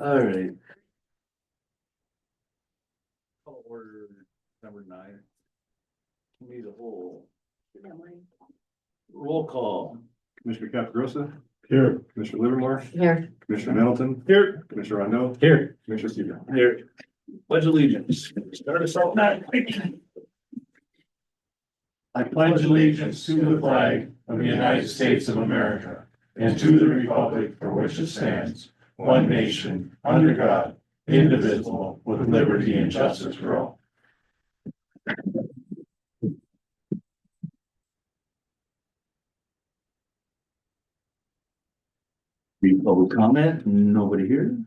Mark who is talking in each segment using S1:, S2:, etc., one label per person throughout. S1: All right,
S2: Call order number nine. Need a whole
S1: roll call.
S3: Commissioner Caprosa. Here. Commissioner Livermore,
S4: Here,
S3: Commissioner Middleton,
S1: Here.
S3: Commissioner Rondo,
S1: Here.
S3: Commissioner Seaver.
S1: Here. Pledge allegiance. Start us off.
S3: I pledge allegiance to the flag of the United States of America and to the republic for which it stands, one nation, under God, indivisible, with liberty and justice for all.
S1: Any public comment? Nobody here?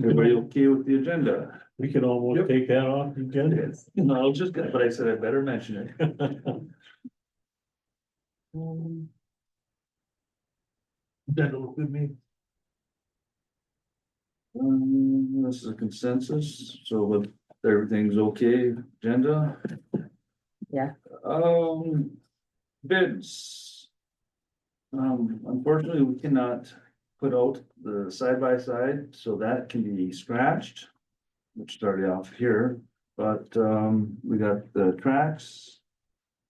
S1: Everybody okay with the agenda?
S5: We could almost
S1: Yep.
S5: take that off the agenda.
S1: No, I was just gonna, but I said I better mention it.
S5: That look good me.
S1: Um, this is a consensus, so with everything's okay, agenda?
S4: Yeah.
S1: Um, bids. Um, unfortunately, we cannot put out the side by side, so that can be scratched. Which started off here, but um, we got the tracks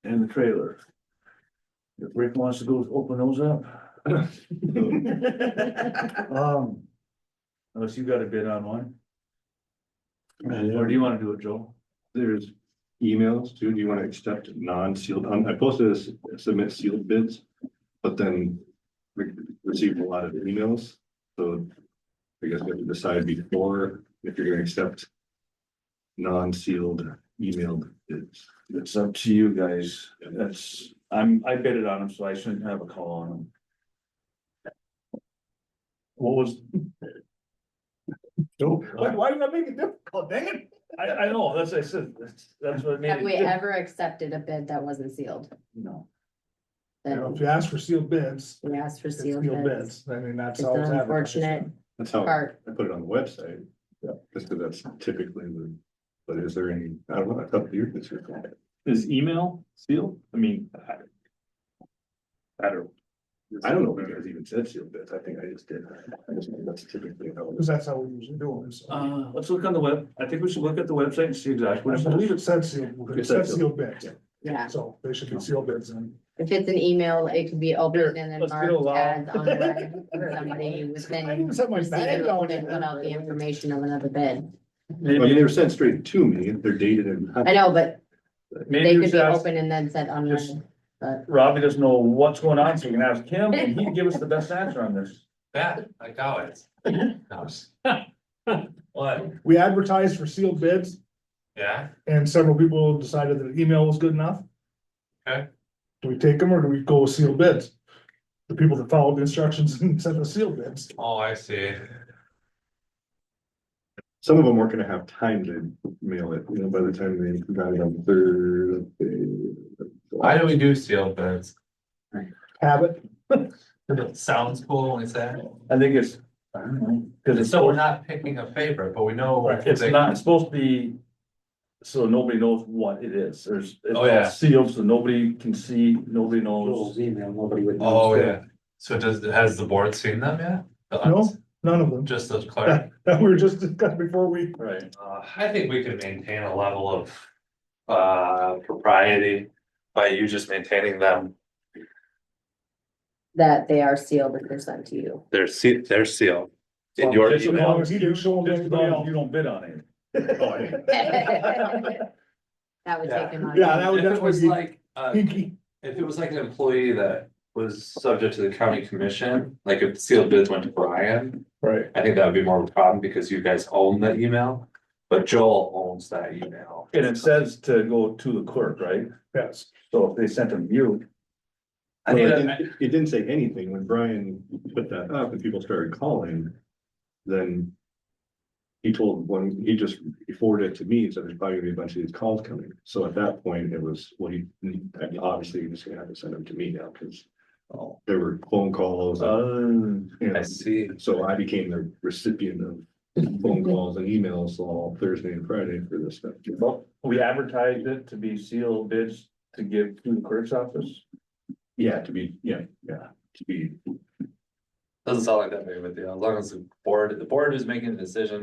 S1: and the trailer. If Rick wants to go open those up. Um. Unless you got a bid on one, or do you wanna do it, Joel?
S3: There's emails too. Do you want to accept non-sealed? Um, I posted this, submit sealed bids, but then we received a lot of emails, so I guess we have to decide before if you're going to accept non-sealed emailed bids.
S1: It's up to you guys, that's, I'm, I bid it on them, so I shouldn't have a call on them.
S5: What was? Nope.
S1: why did I make it difficult, dang it? I, I know, that's, what I said, that's, that's what I made.
S4: have we
S1: it diff-
S4: ever accepted a bid that wasn't sealed?
S1: No,
S4: Then
S6: If you ask for sealed bids,
S4: we asked for
S6: it's
S4: sealed
S6: sealed
S4: bids.
S6: bids, I mean, that's
S4: It's
S6: how
S4: an
S6: it's
S4: unfortunate
S6: advertised.
S3: That's how I
S4: part.
S3: put it on the website.
S1: Yeah.
S3: Just because that's typically the, but is there any, I don't know, I thought you this was.
S7: Is email sealed? I mean. I- I don't,
S3: I don't know if you guys even said sealed bids. I think I just did. I just think that's typically how it is.
S6: Because that's how we usually do them, so.
S1: uh, let's look on the web, I think we should look at the website and see exactly
S6: I
S1: what
S6: believe
S1: it
S6: it
S1: is.
S6: said sealed,
S3: It
S6: it
S3: said
S6: said sealed bids,
S4: Yeah,
S6: so they should be sealed bids and.
S4: if it's an email, it could be opened and then
S1: let's do a
S4: marked
S1: law.
S4: as on the record for somebody within.
S6: set my
S4: receiving open without the information of another bid.
S3: I mean,
S1: Maybe,
S3: they were sent straight to me. They're dated in.
S4: I know, but they
S1: maybe
S4: could
S1: just
S4: be
S1: ask,
S4: open and then said on
S1: just-
S4: the, but
S1: Robbie doesn't know what's going on, so you can ask him, and he can give us the best answer on this.
S8: That, I doubt it. No. What?
S6: We advertised for sealed bids
S8: Yeah,
S6: and several people decided that email was good enough.
S8: Okay.
S6: Do we take them or do we go with sealed bids? The people that followed the instructions and sent the sealed bids.
S8: oh, I see.
S3: Some of them weren't gonna have time to mail it, you know, by the time they got it on Thursday.
S8: Why do we do sealed bids?
S6: Have it,
S8: It sounds cool, is that?
S1: I think it's, I don't know, cause it's.
S8: So
S1: so.
S8: we're not picking a favorite, but we know.
S1: It's not, it's supposed to be, so nobody knows what it is, there's, it's
S8: Oh, yeah.
S1: all sealed, so nobody can see, nobody knows.
S5: email, nobody would.
S8: Oh, yeah. So does, has the board seen them yet? The-
S6: No. none of them,
S8: Just as clear.
S6: that we were just discussing before we
S1: Right.
S8: Uh, I think we could maintain a level of uh propriety by you just maintaining them.
S4: that they are sealed if they're sent to you.
S8: They're sealed, they're sealed. In
S1: Well,
S8: your
S1: just
S6: As
S8: email.
S6: long as you do show them
S1: Just
S6: to
S1: as long
S6: anybody
S1: as
S6: else. Oh,
S1: you don't bid on it.
S4: That would
S8: Yeah.
S4: take them out.
S6: Yeah, that would
S8: If it was
S6: definitely be
S8: like, uh,
S6: pinky.
S8: If it was like an employee that was subject to the county commission, like if sealed bids went to Brian,
S6: Right.
S8: I think that would be more of a problem because you guys own that email. But Joel owns that email.
S1: And it says to go to the clerk, right?
S6: Yes.
S1: So if they sent them you. I
S3: Well,
S1: think
S3: It
S1: that-
S3: didn't- it didn't say anything when Brian put that up and people started calling, then. He told one, he just forwarded it to me, so there's probably gonna be a bunch of these calls coming, so at that point, it was, well, he, obviously, you're just gonna have to send them to me now, cause. There were phone calls,
S1: Um,
S3: and
S8: Oh, I see.
S3: so I became the recipient of phone calls and emails all Thursday and Friday for this stuff.
S1: well, we advertised it to be sealed bids to give to the clerk's office.
S3: Yeah, to be, yeah, yeah, to be
S8: Doesn't sound like that big of a deal, as long as the board, the board is making the decision,